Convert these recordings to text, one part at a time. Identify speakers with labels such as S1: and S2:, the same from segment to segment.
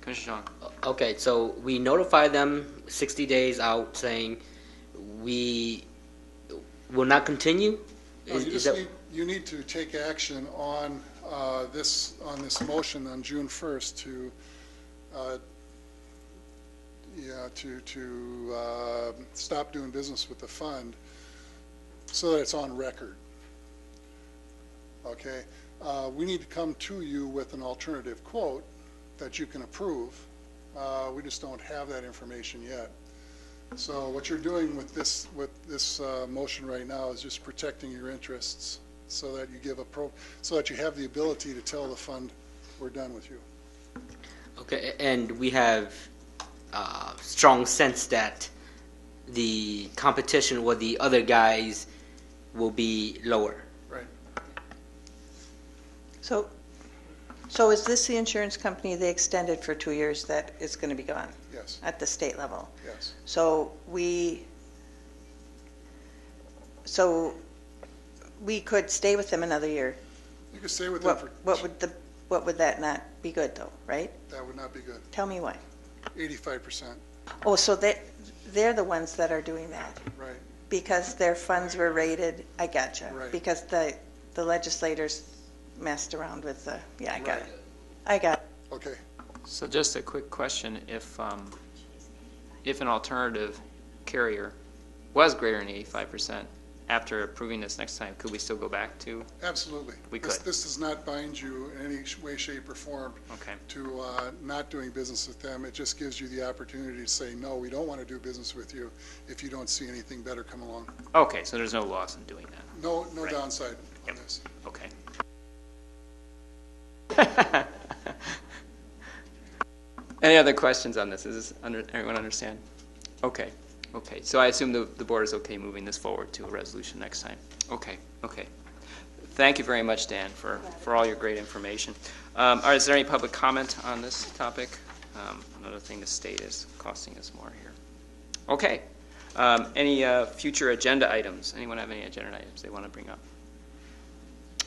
S1: Commissioner John.
S2: Okay, so we notify them 60 days out saying we will not continue?
S3: No,
S2: Is-
S3: you
S2: is
S3: just
S2: that-
S3: need, you need to take action on uh, this, on this motion on June 1st to, uh, yeah, to, to uh, stop doing business with the fund so that it's on record. Okay? Uh, We need to come to you with an alternative quote that you can approve. Uh, We just don't have that information yet. So what you're doing with this, with this uh, motion right now is just protecting your interests so that you give a pro, so that you have the ability to tell the fund, we're done with you.
S2: Okay, a- and we have uh, strong sense that the competition with the other guys will be lower.
S4: So, so is this the insurance company they extended for two years that is going to be gone
S3: Yes,
S4: at the state level?
S3: yes.
S4: So we, so we could stay with them another year.
S3: You could stay with them
S4: What,
S3: for,
S4: what would the, what would that not be good though, right?
S3: that would not be good.
S4: Tell me why.
S3: Eighty-five percent,
S4: Oh, so they, they're the ones that are doing that
S3: right,
S4: because their funds were raided. I gotcha.
S3: Right.
S4: Because the, the legislators messed around with the, yeah, I got
S3: Right.
S4: it. I got it.
S3: okay.
S1: So just a quick question, if, um, if an alternative carrier was greater than eighty-five percent after approving this next time, could we still go back to?
S3: Absolutely.
S1: We
S3: This-
S1: could.
S3: This does not bind you in any sh- way, shape, or form
S1: Okay,
S3: to uh, not doing business with them. It just gives you the opportunity to say, no, we don't want to do business with you if you don't see anything better come along.
S1: okay, so there's no loss in doing that,
S3: No, no
S1: Right.
S3: downside on
S1: Yep.
S3: this.
S1: okay. Any other questions on this? Is this, under everyone understand? Okay, okay, so I assume the, the board is okay moving this forward to a resolution next time? Okay, okay. Thank you very much, Dan, for, for all your great information. Um, all right, is there any public comment on this topic? Um, another thing the state is costing us more here. Okay, um, any, uh, future agenda items? Anyone have any agenda items they want to bring up?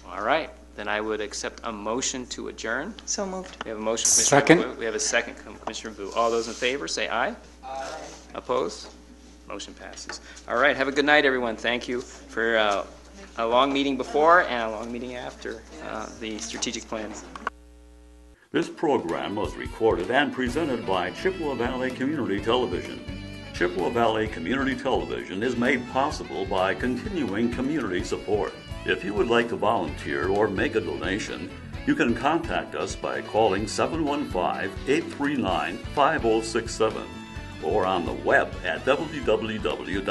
S1: All right, then I would accept a motion to adjourn.
S4: So moved.
S1: We have a motion, Commissioner Second. We have a second, Com- Commissioner Vu. All those in favor, say aye. Aye. Opposed? Motion passes. All right, have a good night, everyone. Thank you for uh, a long meeting before and a long meeting after uh, the strategic plan.
S5: This program was recorded and presented by Chippewa Valley Community Television. Chippewa Valley Community Television is made possible by continuing community support. If you would like to volunteer or make a donation, you can contact us by calling 715 839 5067 or on the web at www.cbctv.org.